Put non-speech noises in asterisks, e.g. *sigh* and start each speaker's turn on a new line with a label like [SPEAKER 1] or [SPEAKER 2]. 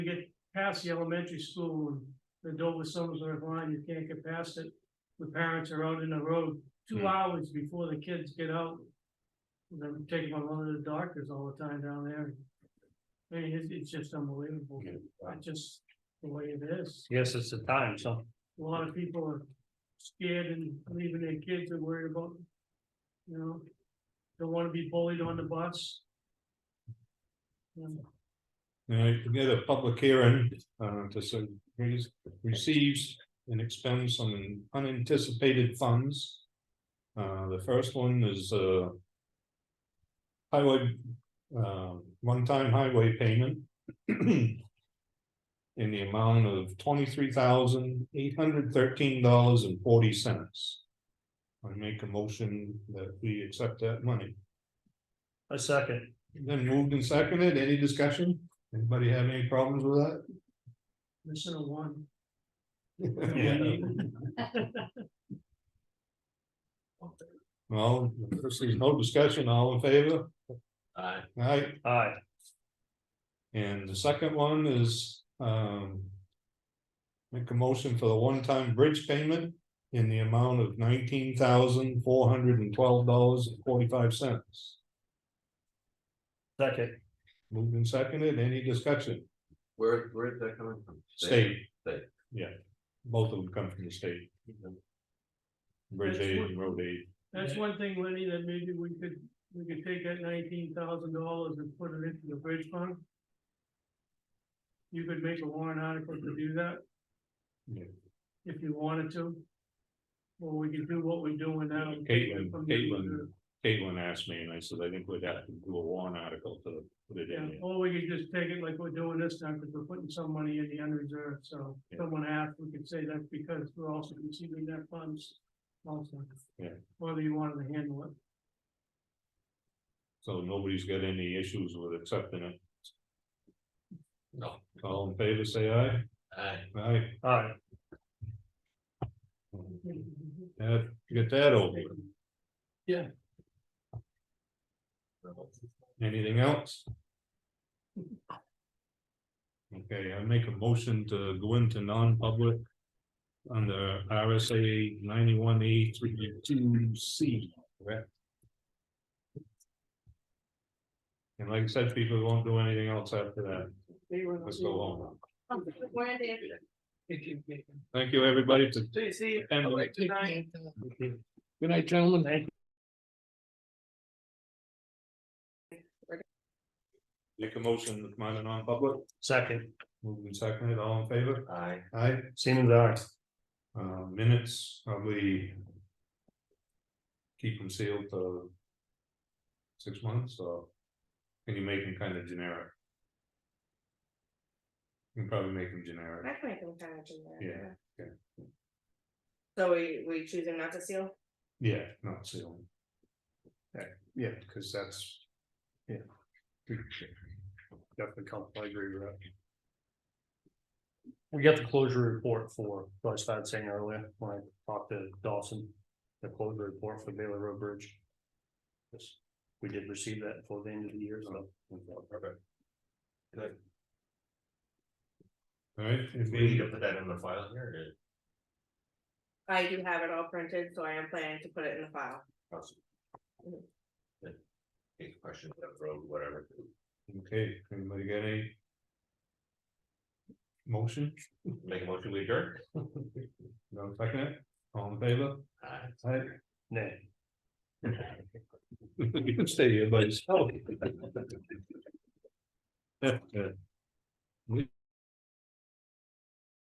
[SPEAKER 1] past the elementary school, and the Dover Summersworth line, you can't get past it. The parents are out in the road
[SPEAKER 2] Hmm.
[SPEAKER 1] two hours before the kids get out. And I'm taking my mother to the doctors all the time down there. I mean, it's, it's just unbelievable,
[SPEAKER 2] Yeah, wow.
[SPEAKER 1] it's just the way it is.
[SPEAKER 2] Yes, it's the time, so.
[SPEAKER 1] A lot of people are scared and leaving their kids and worried about, you know, don't wanna be bullied on the bus. Um,
[SPEAKER 3] All right, we had a public hearing, uh, to say, raise- receives and expends some unanticipated funds. Uh, the first one is, uh. Highway, uh, one-time highway payment. *clears throat* In the amount of twenty-three thousand, eight hundred thirteen dollars and forty cents. I make a motion that we accept that money.
[SPEAKER 2] A second.
[SPEAKER 3] Then moved and seconded, any discussion? Anybody have any problems with that?
[SPEAKER 1] Missing a one.
[SPEAKER 3] *laughs* Well, if there's no discussion, all in favor,
[SPEAKER 2] Aye.
[SPEAKER 3] right?
[SPEAKER 2] Aye,
[SPEAKER 3] And the second one is, um. Make a motion for the one-time bridge payment in the amount of nineteen thousand four hundred and twelve dollars and forty-five cents.
[SPEAKER 2] second.
[SPEAKER 3] Moved and seconded, any discussion?
[SPEAKER 4] Where, where is that coming from?
[SPEAKER 3] State.
[SPEAKER 4] State.
[SPEAKER 3] Yeah, both of them come from the state,
[SPEAKER 4] Mm-hmm.
[SPEAKER 3] bridge aid and road aid.
[SPEAKER 1] That's one thing, Lenny, that maybe we could, we could take that nineteen thousand dollars and put it into the bridge fund. You could make a warrant article to do that.
[SPEAKER 3] Yeah.
[SPEAKER 1] If you wanted to. Or we could do what we're doing now. and take it
[SPEAKER 3] Caitlin,
[SPEAKER 1] from the-
[SPEAKER 3] Caitlin, Caitlin asked me and I said, I think we'd have to do a warrant article to put it in.
[SPEAKER 1] Yeah,
[SPEAKER 3] there."
[SPEAKER 1] or we could just take it like we're doing this time, because we're putting some money in the unreserved, so
[SPEAKER 3] Yeah.
[SPEAKER 1] someone asked, we could say that's because we're also receiving that funds. Also.
[SPEAKER 3] Yeah.
[SPEAKER 1] Whether you wanted to handle it.
[SPEAKER 3] So nobody's got any issues with accepting it.
[SPEAKER 4] No.
[SPEAKER 3] All in favor, say aye.
[SPEAKER 4] Aye.
[SPEAKER 3] Aye. Hmm.
[SPEAKER 2] Aye,
[SPEAKER 3] That, get that over. with. Anything else? Okay, I make a motion to go into non-public. Under RSA ninety-one E three two C, correct? And like I said, people won't do anything else after that. Let's go home.
[SPEAKER 5] Where they
[SPEAKER 3] Thank you, everybody, to
[SPEAKER 5] see.
[SPEAKER 3] attend.
[SPEAKER 2] Good night, gentlemen. Thank you.
[SPEAKER 3] Make a motion, to come out of non-public,
[SPEAKER 2] Second,
[SPEAKER 3] moved and seconded, all in favor?
[SPEAKER 4] Aye.
[SPEAKER 3] Aye.
[SPEAKER 2] Siemens, aye.
[SPEAKER 3] Uh, minutes, probably. Keep them sealed for. Six months, or can you make them kind of generic? You can probably make them generic,
[SPEAKER 5] That might be kind of generic,
[SPEAKER 3] Yeah, yeah.
[SPEAKER 5] So we, we choosing not to seal?
[SPEAKER 3] yeah, not sealed. Yeah, yeah, because that's, yeah. Definitely help, I agree with that.
[SPEAKER 2] We got the closure report for, what I started saying earlier, when I talked to Dawson, the closure report for Baylor Road Bridge. Yes, we did receive that before the end of the year, so.
[SPEAKER 3] Oh,
[SPEAKER 4] Good.
[SPEAKER 3] Alright, if
[SPEAKER 4] We need
[SPEAKER 3] we,
[SPEAKER 4] to put that in the file here, or?
[SPEAKER 5] I do have it all printed, so I am planning to put it in the file. Mhm.
[SPEAKER 4] Any questions on the road, whatever.
[SPEAKER 3] okay, anybody got any? Motion,
[SPEAKER 4] Make a motion, we adjourn.
[SPEAKER 3] *laughs* no second, all in favor?
[SPEAKER 4] Aye.
[SPEAKER 3] Aye.
[SPEAKER 2] Nay.
[SPEAKER 3] *laughs* You can
[SPEAKER 2] Oh.
[SPEAKER 3] stay here by yourself. Yeah, yeah. We-